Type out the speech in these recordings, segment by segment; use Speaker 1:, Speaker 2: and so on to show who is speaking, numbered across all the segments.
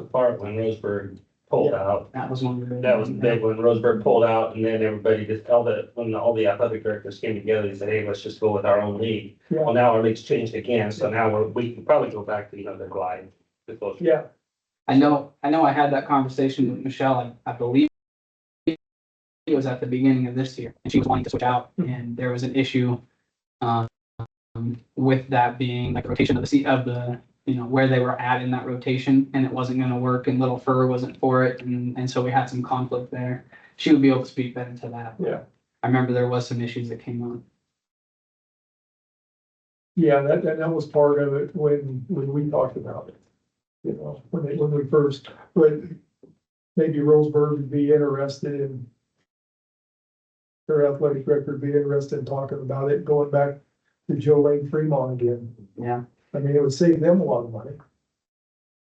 Speaker 1: apart when Roseburg pulled out.
Speaker 2: That was one. of the-
Speaker 1: That was big when Roseburg pulled out and then everybody just, all the, when all the athletic directors came together, they said, hey, let's just go with our own league.
Speaker 3: Yeah.
Speaker 1: Well, now our league's changed again, so now we're, we can probably go back to, you know, the glide. the closer.
Speaker 3: Yeah,
Speaker 2: I know, I know I had that conversation with Michelle, I, I believe. It was at the beginning of this year, and she was wanting to switch out, and there was an issue. Um, with that being like the rotation of the seat of the, you know, where they were at in that rotation, and it wasn't gonna work, and Little Fur wasn't for it, and, and so we had some conflict there. She would be able to speak better to that.
Speaker 3: Yeah.
Speaker 2: I remember there was some issues that came up.
Speaker 3: yeah, that, that, that was part of it when, when we talked about it. You know, when they, when we first, but maybe Roseburg would be interested in. Their athletic director would be interested in talking about it, going back to Joe Lane Fremont again.
Speaker 2: Yeah.
Speaker 3: I mean, it would save them a lot of money.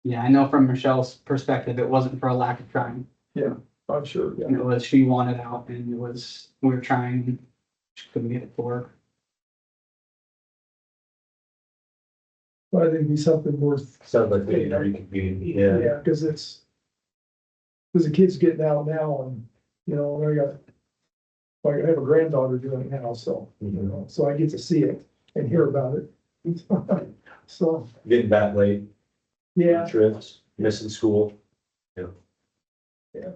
Speaker 2: Yeah, I know from Michelle's perspective, it wasn't for a lack of trying.
Speaker 3: I'm sure, yeah.
Speaker 2: And it was, she wanted out and it was, we were trying, she couldn't get it to work.
Speaker 3: But I think it'd be something worth,
Speaker 4: Sounds like we can reconvene, yeah.
Speaker 3: yeah, because it's. Because the kids getting out now and, you know, I got. Like, I have a granddaughter doing it now, so, you
Speaker 4: Mhm.
Speaker 3: know, so I get to see it and hear about it. So,
Speaker 4: Getting back late,
Speaker 3: yeah,
Speaker 4: trips, missing school.
Speaker 3: you know,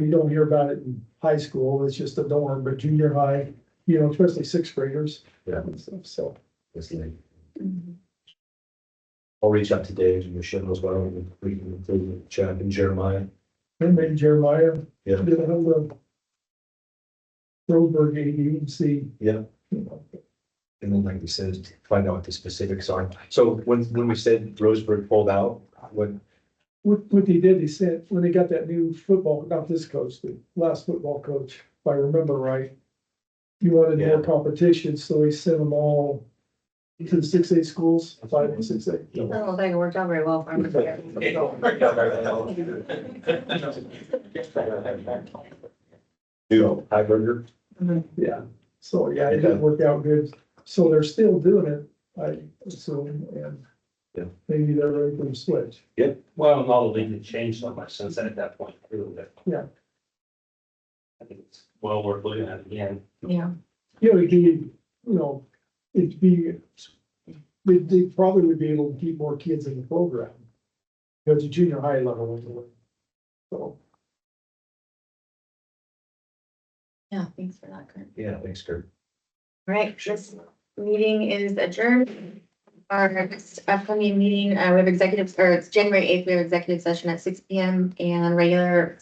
Speaker 3: you don't hear about it in high school, it's just a dorm, but junior high, you know, especially sixth graders.
Speaker 4: Yeah.
Speaker 3: and stuff, So,
Speaker 4: It's late. I'll reach out to Dave and Michelle as well, and we can include Chuck and Jeremiah.
Speaker 3: and maybe Jeremiah
Speaker 4: Yeah.
Speaker 3: did a hell of. Roseburg AD and see.
Speaker 4: Yeah.
Speaker 3: You know,
Speaker 4: And then like we said, find out what the specifics are. So when, when we said Roseburg pulled out, what,
Speaker 3: What, what they did, they sent, when they got that new football, not this coach, the last football coach, if I remember right. He wanted more competition, so he sent them all to the six eight schools, five and six eight.
Speaker 5: I don't think it worked out very well for him.
Speaker 4: do high burger?
Speaker 3: Yeah, so yeah, it didn't work out good. So they're still doing it, I assume, and
Speaker 4: Yeah.
Speaker 3: maybe they're ready for the switch.
Speaker 1: Well, and all the league had changed so much since then at that point, really. that-
Speaker 3: Yeah.
Speaker 1: I think it's well worth looking at again.
Speaker 5: Yeah,
Speaker 3: You know, you can, you know, it'd be, they, they probably would be able to keep more kids in the program. Because the junior high level. is the- So,
Speaker 5: yeah, thanks for that, Kurt.
Speaker 4: Yeah, thanks, Kurt.
Speaker 5: All right, this meeting is adjourned. Our next upcoming meeting, uh, we have executives, or it's January eighth, we have executive session at six P M and regular